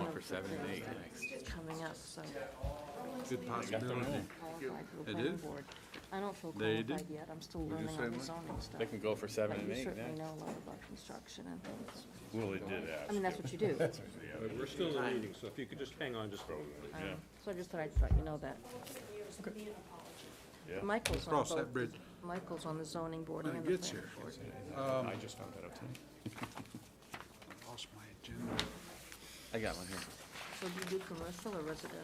One of the for seven and eight things next. that's coming up, so Good Got the possibility. room. qualified for the They planning did? board. I don't feel They did? qualified yet, I'm still you learning say all the what? zoning stuff. They can go for seven But and you eight certainly next. know a lot about construction and things. Willie did I mean, ask. that's what you do. But We're still in a meeting, so if you could just hang on just for a Um, minute. So I just thought I'd let you know that. Yeah. Michael's on Cross both that bridge Michael's on the zoning board when and it the gets planning. here. Um, I just found that out tonight. Lost my agenda. I got one here. So do you do commercial or residential?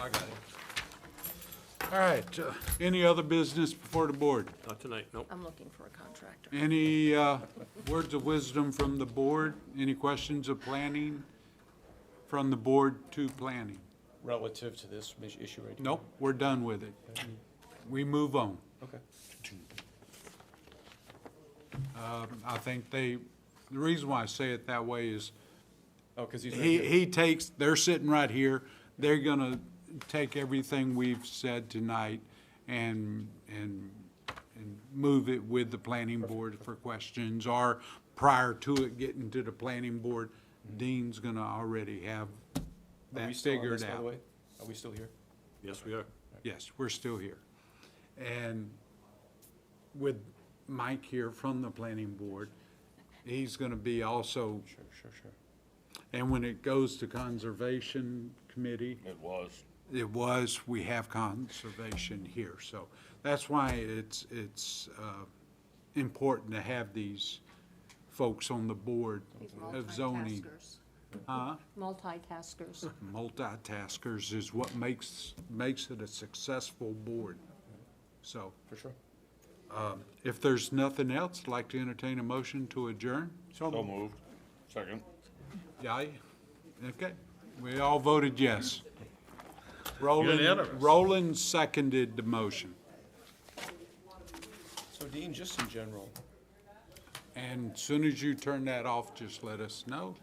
I got it. All right, uh, any other business before the board? Not tonight, nope. I'm looking for a contractor. Any uh, words of wisdom from the board? Any questions of planning? From the board to planning? relative to this mis- issue right here? Nope, we're done with it. We move on. Okay. Um, I think they, the reason why I say it that way is Oh, because he's right he, here. he takes, they're sitting right here, they're gonna take everything we've said tonight and, and, and move it with the planning board for questions, or prior to it getting to the planning board, Dean's gonna already have Are we that still on figured this, By the out. way, are we still here? Yes, we are. Yes, we're still here. And with Mike here from the planning board, he's gonna be also, Sure, sure, sure. and when it goes to conservation committee, It was. it was, we have conservation here, so that's why it's, it's uh, important to have these folks on the board of zoning. Huh? Multitaskers. Multitaskers is what makes, makes it a successful board. So For sure. if there's nothing else, I'd like to entertain a motion to adjourn. So moved. Second. Aye. Okay, we all voted yes. Unanimous. Roland, Roland seconded the motion. So Dean, just in general, And as soon as you turn that off, just let us know.